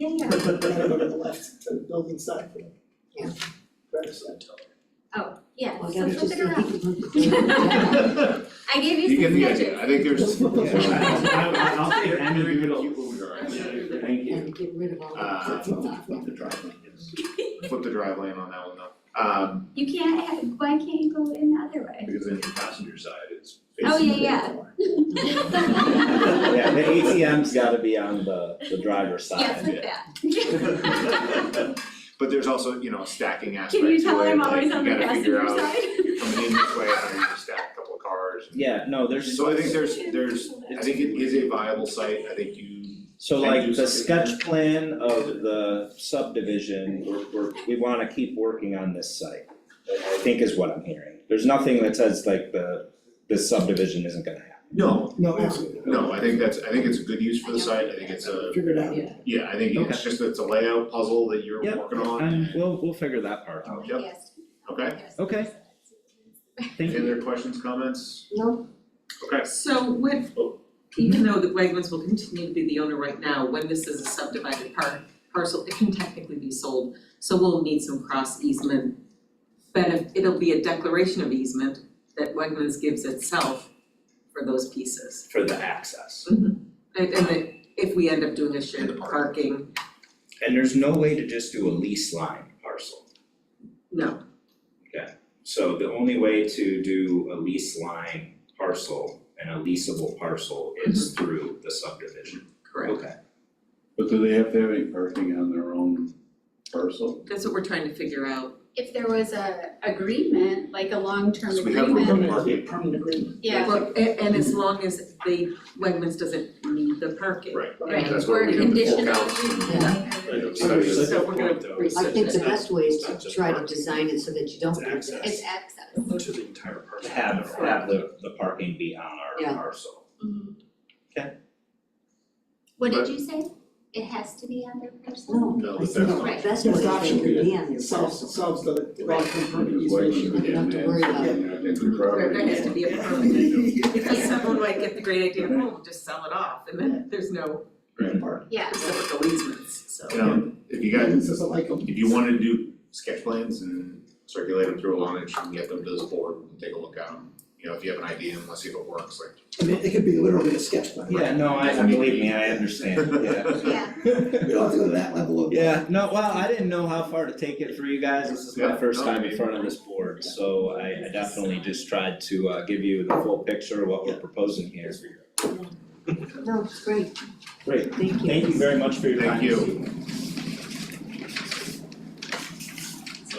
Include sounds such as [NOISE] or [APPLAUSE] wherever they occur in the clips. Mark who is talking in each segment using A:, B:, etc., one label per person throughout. A: Oh,
B: When I go to the left, to the building side.
C: Yeah.
B: Right side.
C: yeah,
A: Well,
C: so
A: that was
C: flip
A: just
C: it
A: so
C: around.
A: he could look
D: [LAUGHS]
A: at it. [LAUGHS]
C: I gave
E: You
C: you
E: get
C: some
E: the
C: sketches.
E: idea, I think
C: [LAUGHS]
E: there's.
F: I- I'll take any
E: Very
F: doodle.
E: cute little drawing.
F: Thank you.
A: And get rid of all
E: Uh,
A: that.
F: Flip the driveway, yes.
E: Flip the drive lane on that one though, um,
C: You can't, have- why can't you go in the other way?
E: because then your passenger side is
C: Oh,
E: facing the
C: yeah,
E: door.
C: yeah.
G: Yeah, the ATM's gotta be on the, the driver's
C: [LAUGHS]
G: side.
C: Yes, like that.
E: [LAUGHS] But there's also, you know, a stacking
C: Can
E: aspect to
C: you
E: it,
C: tell I'm
E: like, you
C: always on the
E: gotta figure
C: passenger
E: out,
C: side?
E: you're coming in this way, how do you stack a couple of cars?
G: Yeah, no, there's,
E: So I think [LAUGHS] there's, there's, I think it is a viable site, I think you,
G: so
E: Thank you,
G: like the
E: sir.
G: sketch plan of the subdivision, we're, we're, we wanna keep working on this site. I think is what I'm hearing. There's nothing that says like the, this subdivision isn't gonna happen.
E: no,
B: No, absolutely.
E: no, I think that's, I think it's a good use for the site, I think it's a,
B: Figure it out.
A: Yeah.
E: yeah, I think it's just, it's a layout puzzle that you're
G: Yep.
E: working on. Um,
G: And we'll, we'll figure that part out.
E: Yep.
C: Yes.
E: Okay.
C: Yes.
G: Okay. Thank
E: Any
G: you.
E: other questions, comments?
A: No.
E: Okay,
D: So with, even though the Wegmans will continue to be the owner right now, when this is a subdivided par- parcel, it can technically be sold. So we'll need some cross easement. But if, it'll be a declaration of easement that Wegmans gives itself for those pieces.
G: For the access.
D: And, and that if we end up doing a
E: And
D: shared
E: the park.
D: parking,
G: And there's no way to just do a lease line parcel.
D: no,
G: So the only way to do a lease line parcel and a leasable parcel is through the subdivision.
D: correct.
H: But do they have to have any parking on their own parcel?
D: That's what we're trying to figure out.
I: if there was a agreement, like a long-term
E: so we have
I: agreement,
E: remote market,
B: Permanent agreement.
I: yeah,
D: Well, a- and as long as they, Wegmans doesn't need the parking.
E: right,
I: right,
E: that's
I: or
E: what we have the full
I: conditional
E: count.
I: use.
E: Studies.
D: So we're gonna
A: I
D: research
A: think the
D: that.
A: best way is to try to design it so that you don't do that.
I: It's access.
F: To the entire parcel.
G: Have have the the parking be on our
A: Yeah.
G: parcel.
C: What did
E: But-
C: you say? It has to be other person?
A: No,
E: No,
A: I
E: but
A: think
E: that's
A: the
C: not-
A: best way is that you can be on your
B: It
A: parcel.
B: solves, solves the long-term permanent
H: Because
B: easement
H: Wegmans
B: issue.
A: would-
H: became
A: have to worry about
H: landlocked, and I think the property
D: There has to be a
H: owners-
D: permanent- [LAUGHS] Because someone might get the great idea, oh, just sell it off, and then there's no
C: Yeah.
D: reciprocal easements, so.
E: You know, if you guys,
B: This is a like a-
E: if you wanted to do sketch plans and circulate them through a line, you can get them to this board and take a look at them. You know, if you have an idea and let's see if it works, like.
B: I mean, it could be literally a sketch plan.
G: Yeah, no, I I believe me, I understand, yeah.
C: Yeah,
E: [LAUGHS]
B: We don't have to go to that level of.
G: Yeah, no, well, I didn't know how far to take it for you guys, this is my
E: Yeah,
G: first
E: no,
G: time in
E: maybe.
G: front of this board, so I I definitely just tried to uh give you the full picture of what we're proposing here.
A: No, it's great.
G: Great.
A: Thank you.
G: Thank you very much for your time.
E: Thank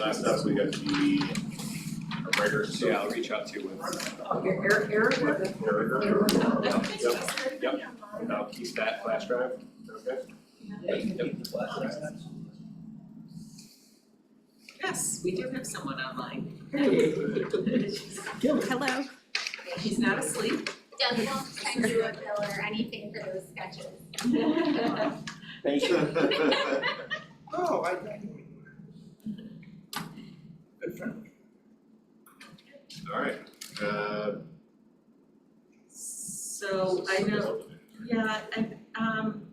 E: you. Last up, we got the writer, so.
F: Yeah, I'll reach out to you with,
D: Oh, Eric, Eric, Eric,
E: Yep, and I'll keep that flash drive, okay?
D: yes, we do have someone online.
J: Hello.
D: He's not asleep.
C: Doug, we don't send you a bill or anything for those sketches.
G: Thank you.
B: Oh, I, I know. Good friend.
E: Alright, uh.
D: So I know Yeah, and um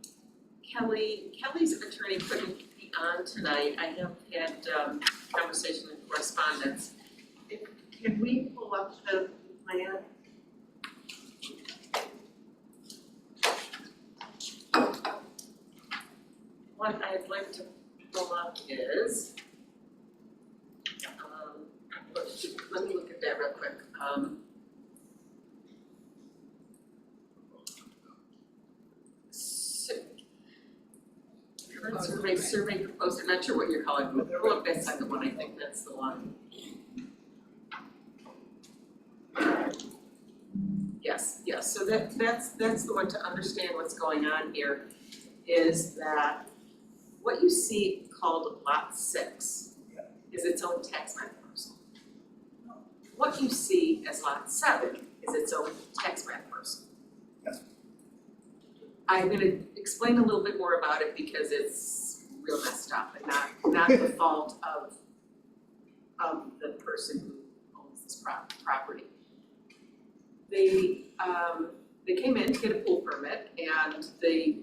D: Kelly, Kelly's attorney couldn't be on tonight, I have had um conversation and correspondence. If- Can we pull up the plan? What I'd like to pull up is um, let me look at that real quick, um. So- Current survey, survey proposed, I'm not sure what you're calling it, but look, that's not the one, I think that's the one. Yes, yes, so that, that's, that's the one to understand what's going on here, is that what you see called lot six is its own tax map parcel. What you see as lot seven is its own tax map parcel. I'm gonna explain a little bit more about it because it's real messed up and not, not the fault of, of the person who owns this prop- property. They, um, they came in to get a pool permit and they,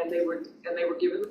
D: and they were, and they were given the